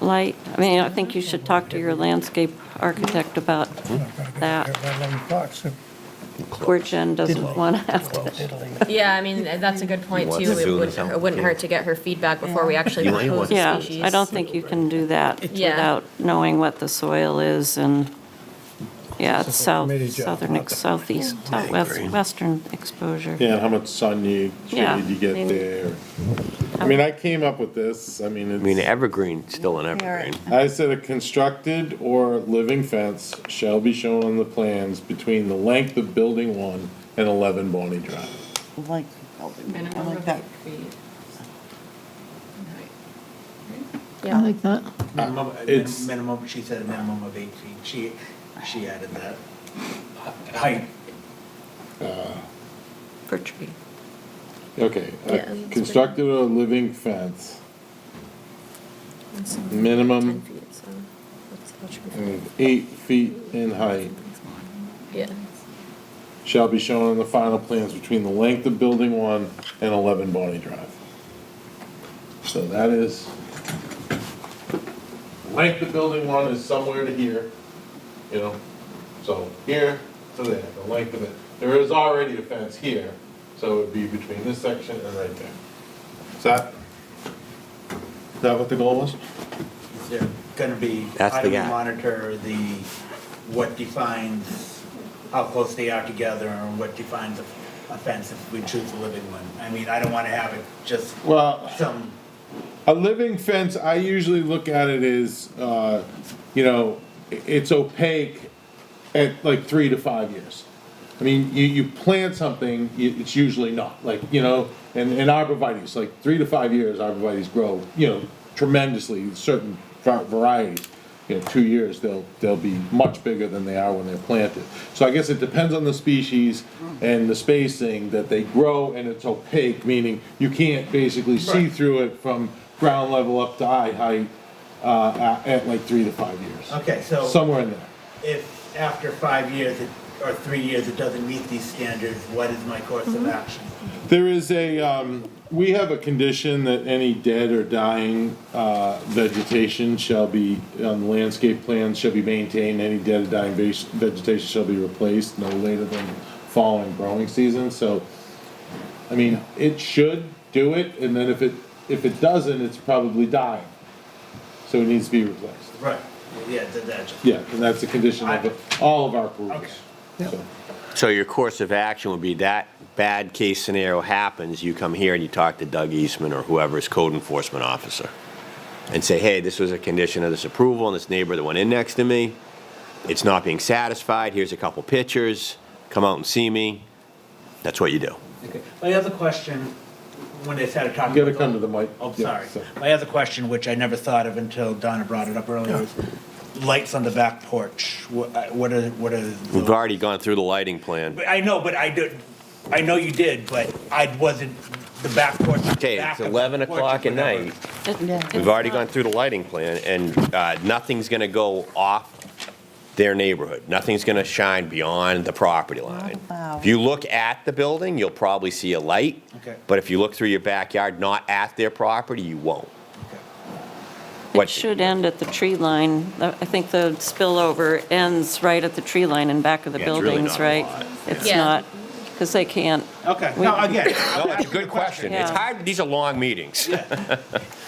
light? I mean, I think you should talk to your landscape architect about that. Where Jen doesn't want to have to. Yeah, I mean, that's a good point What's too. the It feeling would, sound? it wouldn't hurt to get her feedback before we actually You want- you propose want- a Yeah, species. I don't think you can do that Yeah. without knowing what the soil is and, yeah, it's It's a south, committee job, southern, not ex- southeast, southwest, western exposure. Yeah, and how much sun you, Yeah, shade you I mean- get there. I mean, I came up with this, I mean, I mean, it's, evergreen, still an evergreen. I said a constructed or living fence shall be shown on the plans between the length of building one and eleven Bonnie Drive. Like, I like that. I Yeah, like that. Minimum, Uh, It's- minimum, she said a minimum of eight feet. She, she added that height. For tree. Okay, Yeah, a it's constructed or living fence, Ten minimum Mm. feet, so that's how true. of uh, eight feet in height, Yeah, shall be shown on the final plans between the length of building one and eleven Bonnie Drive. So that is, length of building one is somewhere to here, you know, so here to there, the length of it. There is already a fence here, so it would be between this section and right there. Is that, is that what the goal was? Is there gonna be? That's How do the we guy. monitor the, what defines how close they are together and what defines a a fence if we choose a living one? I mean, I don't wanna have it just Well, some, A living fence, I usually look at it as, uh, you know, i- it's opaque at like three to five years. I mean, you, you plant something, y- it's usually not, like, you know, and, and arborvitae's, like, three to five years, arborvitae's grow, you know, tremendously, certain va- varieties. You know, two years, they'll, they'll be much bigger than they are when they're planted. So I guess it depends on the species and the spacing that they grow, and it's opaque, meaning you can't basically see through it from ground level up to eye height, uh, at, at like three to five years. okay, so. Somewhere in there. if after five years it- or three years it doesn't meet these standards, what is my course of action? There is a, um, we have a condition that any dead or dying, uh, vegetation shall be, on the landscape plan shall be maintained, any dead or dying veg- vegetation shall be replaced no later than fall and growing season, so, I mean, it should do it, and then if it, if it doesn't, it's probably dying. So it needs to be replaced. Right. Yeah, that, that, Yeah, and that's a condition of all of our approvals. Okay. So- So your course of action would be that bad case scenario happens, you come here and you talk to Doug Eastman or whoever is code enforcement officer and say, hey, this was a condition of this approval and this neighbor that went in next to me, it's not being satisfied, here's a couple pictures, come out and see me. That's what you do. okay. My other question, when they started talking. You gotta about- come to the mic. Oh, Yeah, sorry. so- My other question, which I never thought of until Donna brought it up earlier, is lights on the back porch. What, I- what are, what are? We've already gone through the lighting plan. But I know, but I did, I know you did, but I wasn't, the back porch. Okay, back it's of the 11 porch, o'clock at whatever. night. It- Yeah. it's We've already not- gone through the lighting plan, and uh, nothing's going to go off their neighborhood. Nothing's going to shine beyond the property line. Wow. If you look at the building, you'll probably see a light. Okay. But if you look through your backyard, not at their property, you won't. Okay. It What- should end at the tree line. The- I think the spillover ends right at the tree line in back of the Yeah, it's really buildings, not a right? lot. It's Yeah. not, because they can't, Okay, no, again. No, it's a good question. It's Yeah. hard, these are long meetings,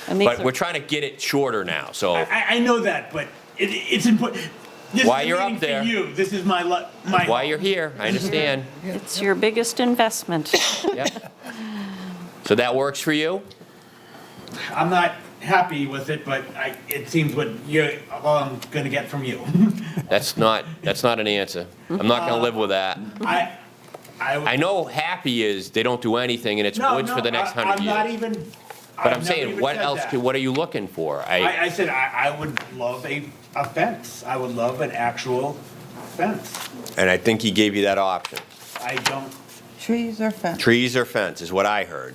and these but are- we're trying to get it shorter now, so. I, I know that, but it, it's important. This Why is a you're up meeting for there. you. This is my, lo- my. While you're here, I understand. it's your biggest investment. Yep. So that works for you? I'm not happy with it, but I, it seems what you're, all I'm gonna get from you. That's not, that's not an answer. I'm not Uh, going to live with that. I, I I. know happy is they don't do anything and it's no, woods for no, the next I- hundred I'm not years. even. But I've I'm never saying, even what said else, that. could- what are you looking for? I, I, I said, I, I would love a, a fence. I would love an actual fence. and I think he gave you that option. I don't, Trees or fence? Trees or fence is what I heard,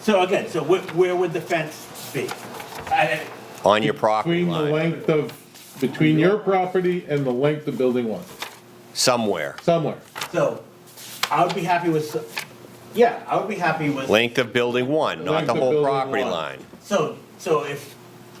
so again, so where, where would the fence be? I, on your property Between the line, length of, between your property and the length of building one, somewhere. somewhere. so, I would be happy with, so- yeah, I would be happy with. Length of building one, not Length the of whole building property one. line. So, so if